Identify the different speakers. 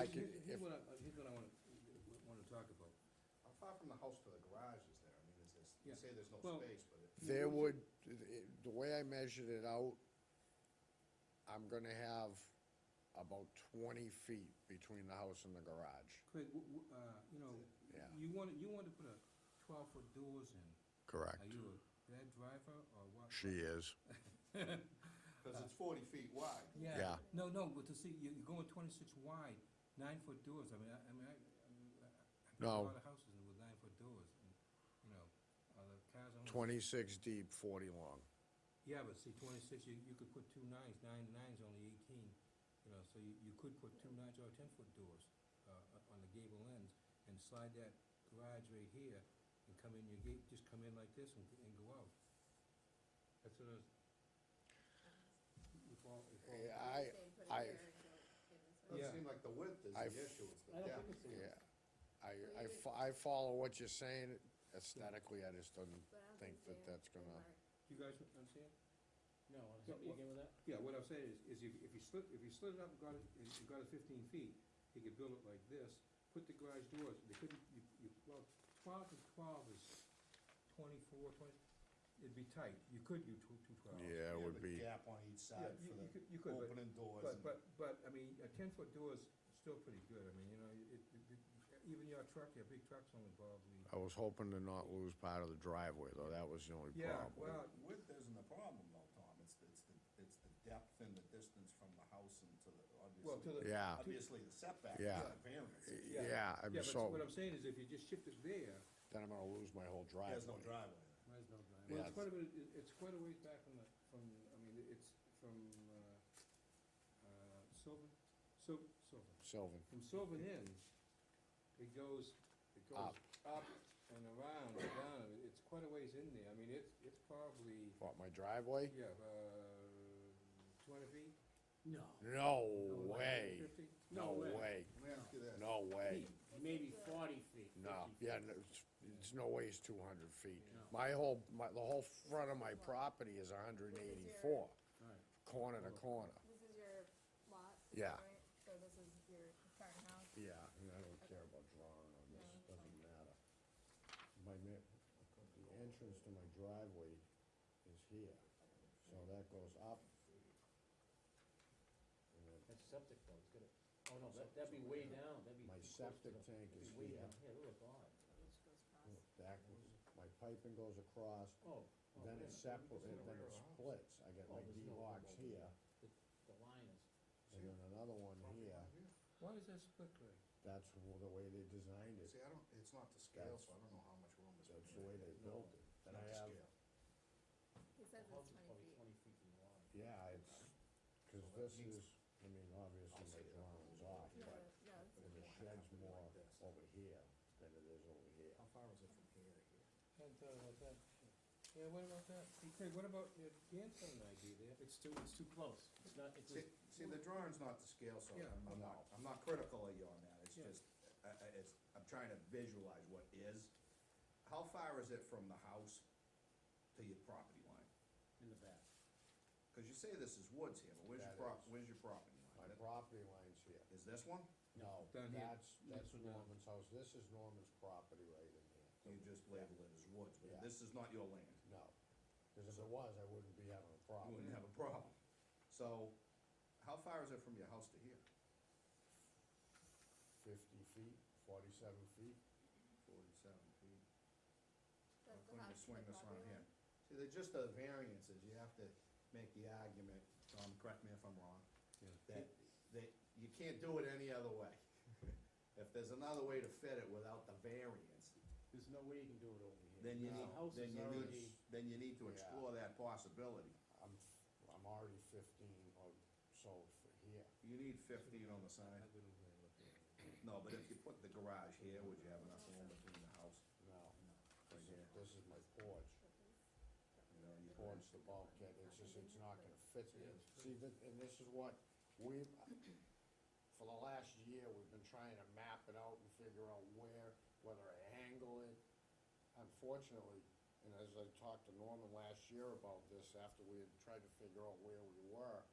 Speaker 1: uh,
Speaker 2: far from the house to the garage is there? I mean, is this, you
Speaker 1: Yeah.
Speaker 2: say there's no
Speaker 1: Well-
Speaker 2: space, but it,
Speaker 3: There would, it- the way I measured it out, I'm gonna have about twenty feet between the house and the garage.
Speaker 1: Craig, w- w- uh, you know,
Speaker 3: Yeah.
Speaker 1: you want, you want to put a twelve-foot doors in.
Speaker 3: Correct.
Speaker 1: Are you a bad driver or what?
Speaker 3: She is.
Speaker 2: because it's forty feet wide.
Speaker 1: Yeah.
Speaker 3: Yeah.
Speaker 1: No, no, but to see, you- you're going twenty-six wide, nine-foot doors, I mean, I, I mean, I, I mean, I- I've been to a
Speaker 3: No.
Speaker 1: lot of houses with nine-foot doors, and, you know, uh, the cars only.
Speaker 3: Twenty-six deep, forty long.
Speaker 1: Yeah, but see, twenty-six, you, you could put two nines, nine, nine's only eighteen, you know, so you, you could put two nines or ten-foot doors, uh, uh, on the gable ends, and slide that garage right here, and come in your gate, just come in like this and, and go out. That's what I was. You follow- you follow?
Speaker 3: Yeah, I, I-
Speaker 2: Doesn't
Speaker 1: Yeah.
Speaker 2: seem like the width is
Speaker 3: I
Speaker 2: the
Speaker 3: f-
Speaker 2: issue, it's the
Speaker 4: I don't
Speaker 2: depth.
Speaker 4: think it's the
Speaker 3: yeah,
Speaker 4: width,
Speaker 3: I, I fo- I follow what you're saying aesthetically, I just don't think that that's gonna,
Speaker 1: You guys understand?
Speaker 4: no, is
Speaker 1: Yeah,
Speaker 4: that, you
Speaker 1: what-
Speaker 4: okay with that?
Speaker 1: Yeah, what I'm saying is, is if, if you slid, if you slid it up and got it, and you got it fifteen feet, you could build it like this, put the garage doors, they couldn't, you, you, well, twelve and twelve is twenty-four, twenty, it'd be tight, you could do two, two twelves.
Speaker 3: yeah, it
Speaker 2: You have
Speaker 3: would
Speaker 2: a
Speaker 3: be,
Speaker 2: Gap on each side
Speaker 1: you,
Speaker 2: for
Speaker 1: you
Speaker 2: the
Speaker 1: could, you could, but,
Speaker 2: opening doors.
Speaker 1: but,
Speaker 2: and-
Speaker 1: but, but, I mean, a ten-foot door's still pretty good, I mean, you know, it, it, it- even your truck, your big truck's only probably,
Speaker 3: I was hoping to not lose part of the driveway, though, that was the only
Speaker 1: yeah,
Speaker 3: problem.
Speaker 1: well,
Speaker 2: Width isn't the problem though, Tom, it's, it's the, it's the depth and the distance from the house and to the,
Speaker 1: well, to
Speaker 2: obviously,
Speaker 1: the,
Speaker 3: Yeah,
Speaker 2: obviously the setback is
Speaker 3: Yeah.
Speaker 2: the variance.
Speaker 1: yeah.
Speaker 3: yeah, I mean,
Speaker 1: yeah, but
Speaker 3: so,
Speaker 1: what I'm saying is if you just shift it there,
Speaker 3: then I'm gonna lose my whole
Speaker 2: There's no
Speaker 3: driveway.
Speaker 2: driveway there.
Speaker 4: Where's no driveway?
Speaker 1: Well,
Speaker 3: Yeah.
Speaker 1: it's quite a bit, it- it's quite a ways back from the, from, I mean, it's from, uh, uh, Sylvan, Syl- Sylvan.
Speaker 3: Sylvan,
Speaker 1: From Sylvan Inn, it goes, it goes
Speaker 3: Up.
Speaker 1: up and around and down, I mean, it's quite a ways in there, I mean, it's, it's probably,
Speaker 3: what, my driveway?
Speaker 1: yeah, uh, two hundred feet?
Speaker 4: No.
Speaker 3: No
Speaker 4: No
Speaker 3: way,
Speaker 1: Fifty?
Speaker 3: no
Speaker 4: way.
Speaker 3: way,
Speaker 2: Let me ask you this,
Speaker 3: no way,
Speaker 4: Maybe forty feet, fifty feet.
Speaker 3: no, yeah, no, it's, it's no way it's two hundred feet.
Speaker 4: No.
Speaker 3: My whole, my, the whole front of my property is hundred and eighty-four,
Speaker 4: Alright.
Speaker 3: corner to corner.
Speaker 5: This is your lot?
Speaker 3: Yeah.
Speaker 5: right? So this is your current house?
Speaker 3: Yeah, I mean, I don't care about drawing on this, it doesn't matter. My ma- the entrance to my driveway is here, so that goes up. And then
Speaker 4: That's septic though, it's gonna, oh no, that, that'd be way down, that'd be.
Speaker 3: My
Speaker 4: close to
Speaker 3: septic
Speaker 4: the-
Speaker 3: tank
Speaker 4: it'd
Speaker 3: is
Speaker 4: be way
Speaker 3: here,
Speaker 4: down here, look at God.
Speaker 3: that, my piping goes across,
Speaker 4: Oh. oh,
Speaker 3: then
Speaker 4: wait a
Speaker 3: it
Speaker 4: minute.
Speaker 3: separates,
Speaker 1: It's in the
Speaker 3: then it
Speaker 1: rear of the house.
Speaker 3: splits, I get
Speaker 4: Oh,
Speaker 3: my
Speaker 4: there's no
Speaker 3: D-locks
Speaker 4: remote.
Speaker 3: here,
Speaker 4: The, the line is,
Speaker 3: and then another one here,
Speaker 1: Why is that split grade?
Speaker 3: that's wh- the way they designed it,
Speaker 2: see, I don't, it's not to scale, so I don't know how much room is.
Speaker 3: that's the way they built it.
Speaker 2: Not
Speaker 3: And I
Speaker 2: to
Speaker 3: have,
Speaker 2: scale.
Speaker 5: He
Speaker 4: the
Speaker 5: says
Speaker 4: house
Speaker 5: it's twenty
Speaker 4: is probably
Speaker 5: feet.
Speaker 4: twenty feet from the line.
Speaker 3: yeah, it's, cause
Speaker 2: So that
Speaker 3: this is,
Speaker 2: means-
Speaker 3: I mean, obviously
Speaker 2: I'll
Speaker 3: my
Speaker 2: say that.
Speaker 3: drawing's off,
Speaker 5: No,
Speaker 3: but
Speaker 5: no, it's
Speaker 3: And the
Speaker 5: okay.
Speaker 3: shed's more over here than it is over here.
Speaker 2: How far is it from here to here?
Speaker 1: Hadn't thought about that. Yeah, what about that? Hey, Craig, what about, uh, Dan's got an idea there.
Speaker 4: It's too, it's too close, it's not, it's,
Speaker 2: See, see, the drawing's not to scale, so
Speaker 1: Yeah.
Speaker 2: I'm I'm not, I'm not critical of you on that, it's
Speaker 1: Yeah.
Speaker 2: just, I, I, it's, I'm trying to visualize what is. How far is it from the house to your property line?
Speaker 4: in the back.
Speaker 2: Cause you say this is woods here, but where's your
Speaker 3: That
Speaker 2: prop,
Speaker 3: is.
Speaker 2: where's your property
Speaker 3: My
Speaker 2: line?
Speaker 3: property line's here.
Speaker 2: Is this one?
Speaker 3: No,
Speaker 1: Down here.
Speaker 3: that's, that's
Speaker 1: This one down.
Speaker 3: Norman's house. This is Norman's property right in here.
Speaker 2: You just label it as woods, but
Speaker 3: Yeah.
Speaker 2: this is not your land,
Speaker 3: No, cause if it was, I wouldn't be having a
Speaker 2: you
Speaker 3: problem.
Speaker 2: wouldn't have a problem. So, how far is it from your house to here?
Speaker 3: Fifty feet, forty-seven feet.
Speaker 2: Forty-seven feet.
Speaker 5: Does
Speaker 2: I'm
Speaker 5: the
Speaker 2: going to
Speaker 5: house to
Speaker 2: swing
Speaker 5: the
Speaker 2: this
Speaker 5: property
Speaker 2: around here.
Speaker 5: line?
Speaker 2: See, they're just the variances, you have to make the argument, Tom, correct me if I'm wrong, that, that you can't do it any other way. If there's another way to fit it without the variance,
Speaker 4: There's no way you can do it over here.
Speaker 2: then you
Speaker 4: The
Speaker 2: need,
Speaker 4: house
Speaker 2: then
Speaker 4: is
Speaker 2: you
Speaker 4: already,
Speaker 2: need, then you need to
Speaker 3: Yeah.
Speaker 2: explore that possibility.
Speaker 3: I'm, I'm already fifteen or so for here.
Speaker 2: You need fifteen on the side.
Speaker 1: I went over there and looked at it.
Speaker 2: No, but if you put the garage here, would you have enough room between the house?
Speaker 3: No,
Speaker 2: Right
Speaker 3: this is,
Speaker 2: here,
Speaker 3: this is my porch.
Speaker 2: you know, you
Speaker 3: Porch, the bulkhead, it's just, it's not gonna fit there. See, thi- and this is what we've, for the last year, we've been trying to map it out and figure out where, whether to angle it. Unfortunately, and as I talked to Norman last year about this, after we had tried to figure out where we were,